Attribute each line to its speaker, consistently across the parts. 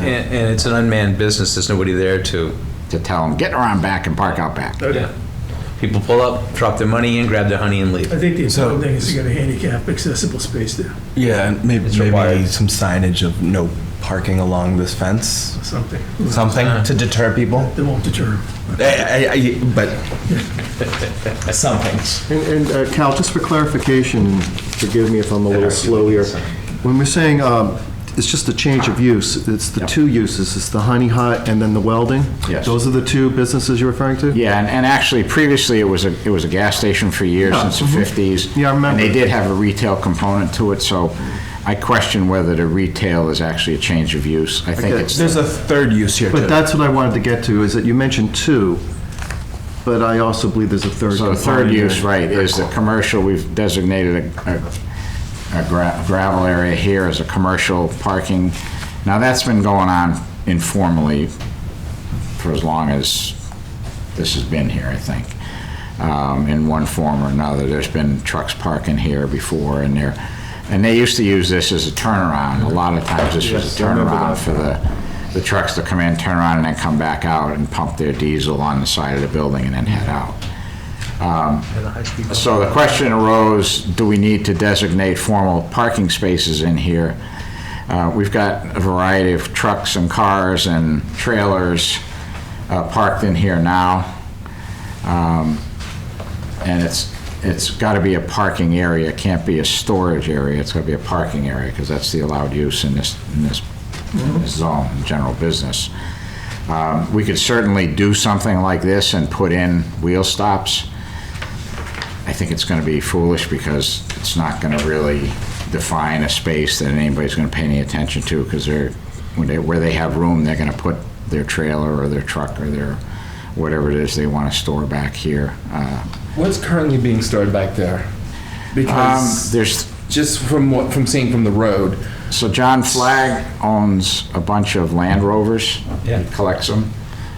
Speaker 1: And, and it's an unmanned business, there's nobody there to,
Speaker 2: to tell them, get around back and park out back.
Speaker 1: yeah. People pull up, drop their money in, grab their honey and
Speaker 3: I
Speaker 1: leave.
Speaker 3: think the important
Speaker 4: So-
Speaker 3: thing is to get a handicap accessible space there,
Speaker 4: Yeah, and maybe,
Speaker 1: It's
Speaker 4: maybe
Speaker 1: required.
Speaker 4: some signage of no parking along this fence,
Speaker 3: or something.
Speaker 4: something to deter people.
Speaker 3: That won't deter 'em.
Speaker 4: I- I- I- but something.
Speaker 5: And and, uh, Cal, just for clarification, and forgive me if I'm a little slow here. When we're saying um, it's just a change of use, it's the two uses, it's the honey hut and then the welding?
Speaker 2: Yes.
Speaker 5: Those are the two businesses you're referring to?
Speaker 2: Yeah, and, and actually previously it was a, it was a gas station for years since the fifties.
Speaker 5: Yeah, I remember.
Speaker 2: And they did have a retail component to it, so I question whether the retail is actually a change of use. I think
Speaker 5: Okay.
Speaker 2: it's,
Speaker 4: There's a third use here
Speaker 5: But
Speaker 4: too.
Speaker 5: that's what I wanted to get to, is that you mentioned two, but I also believe there's a third.
Speaker 2: so the third
Speaker 5: component.
Speaker 2: use, right, is the commercial, we've designated a, a a gra- gravel area here as a commercial parking. Now, that's been going on informally for as long as this has been here, I think, um, in one form or another. There's been trucks parking here before and there, and they used to use this as a turnaround. A lot of times this was a turnaround for the, the trucks to come in, turn around and then come back out and pump their diesel on the side of the building and then head out. Um, So the question arose, do we need to designate formal parking spaces in here? Uh, We've got a variety of trucks and cars and trailers uh, parked in here now. Um, And it's, it's got to be a parking area, it can't be a storage area, it's got to be a parking area, because that's the allowed use in this, in this in this zone, in general business. Um, We could certainly do something like this and put in wheel stops. I think it's going to be foolish, because it's not going to really define a space that anybody's going to pay any attention to, because they're, when they, where they have room, they're going to put their trailer or their truck or their, whatever it is they want to store back here. Uh,
Speaker 6: What's currently being stored back there?
Speaker 2: Um,
Speaker 6: Because
Speaker 2: there's,
Speaker 6: just from what from seeing from the road,
Speaker 2: so John Flagg owns a bunch of Land Rovers.
Speaker 1: Yeah.
Speaker 2: He collects them.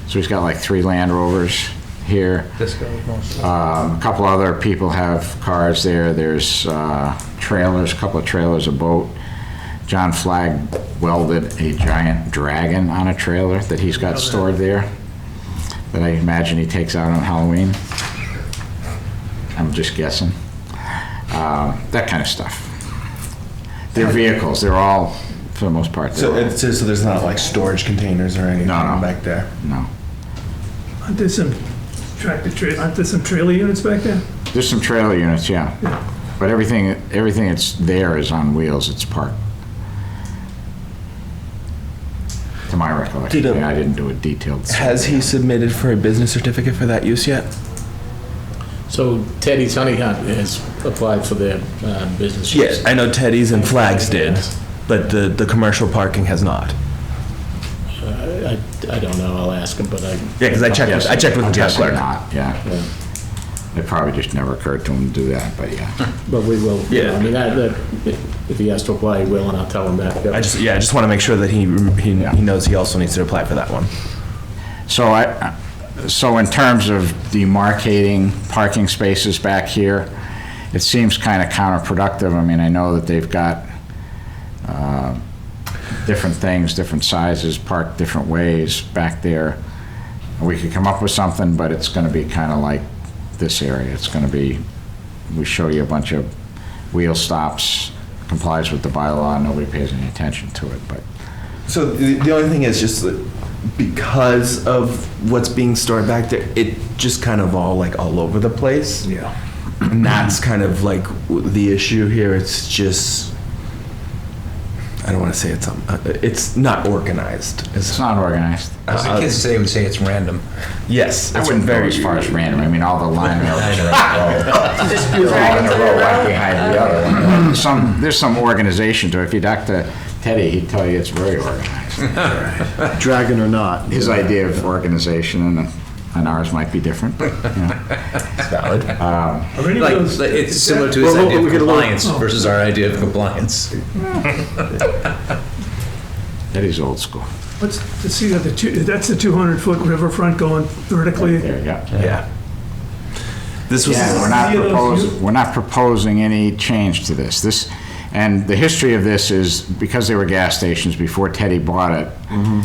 Speaker 2: So he's got like three Land Rovers here. Um, a couple other people have cars there. There's uh, trailers, a couple of trailers, a boat. John Flagg welded a giant dragon on a trailer that he's got stored there that I imagine he takes out on Halloween. I'm just guessing. Uh, that kind of stuff. They're vehicles. They're all, for the most part,
Speaker 4: So
Speaker 2: they're all,
Speaker 4: it says, so there's not like storage containers or anything
Speaker 2: No, no.
Speaker 4: back there?
Speaker 2: no.
Speaker 3: Aren't there some tractor tra, aren't there some trailer units back there?
Speaker 2: There's some trailer units, yeah. But everything, everything that's there is on wheels, it's parked. To my recollection,
Speaker 4: Did, um,
Speaker 2: yeah, I didn't do a detailed.
Speaker 4: Has he submitted for a business certificate for that use yet?
Speaker 7: So Teddy's Honey Hunt has applied for their uh, business.
Speaker 4: Yes, I know Teddy's and Flags did, but the, the commercial parking has not.
Speaker 7: I, I don't know, I'll ask him, but I.
Speaker 4: Yeah, 'cause I checked
Speaker 2: Yes,
Speaker 4: I checked with
Speaker 2: I'm
Speaker 4: the town
Speaker 2: guessing
Speaker 4: clerk.
Speaker 2: not, Yeah. It probably just never occurred to him to do that, but yeah.
Speaker 7: But we will.
Speaker 4: Yeah.
Speaker 7: I mean, I- that, if he has to apply, he will, and I'll tell him that.
Speaker 4: I just, yeah, I just want to make sure that he, he he knows he also needs to apply for that one.
Speaker 2: So I, so in terms of demarcating parking spaces back here, it seems kind of counterproductive. I mean, I know that they've got uh, different things, different sizes, parked different ways back there. We could come up with something, but it's going to be kind of like this area. It's going to be, we show you a bunch of wheel stops, complies with the bylaw, nobody pays any attention to it, but
Speaker 4: So the, the only thing is just that because of what's being stored back there, it just kind of all like all over the place. Yeah. And that's kind of like w- the issue here. It's just, I don't want to say it's, um, uh, it's not organized.
Speaker 2: it's not organized.
Speaker 1: As Uh, the kids say, would say it's random.
Speaker 4: Yes.
Speaker 2: I
Speaker 4: it's
Speaker 2: wouldn't go
Speaker 4: very-
Speaker 2: as far as random. I mean, all the line
Speaker 1: I
Speaker 2: mailers
Speaker 1: know.
Speaker 2: are all in a row, one behind the other. one. Some, there's some organization to it. If you talk to Teddy, he'd tell you it's very organized.
Speaker 5: Dragon or not.
Speaker 2: His idea of organization and, and ours might be different. but, you know.
Speaker 3: Are any of
Speaker 1: Like,
Speaker 3: those-
Speaker 1: like, it's
Speaker 3: is
Speaker 1: similar
Speaker 3: that-
Speaker 1: to his
Speaker 5: Well,
Speaker 1: idea
Speaker 5: we
Speaker 1: of
Speaker 5: could look-
Speaker 1: compliance versus our idea of compliance.
Speaker 2: Teddy's old school.
Speaker 3: What's, to see that the two, that's the 200-foot riverfront going vertically?
Speaker 2: There you go.
Speaker 4: Yeah. This was.
Speaker 2: Yeah, we're not
Speaker 3: Yeah, those-
Speaker 2: proposing, we're not proposing any change to this. This, And the history of this is because they were gas stations before Teddy bought it,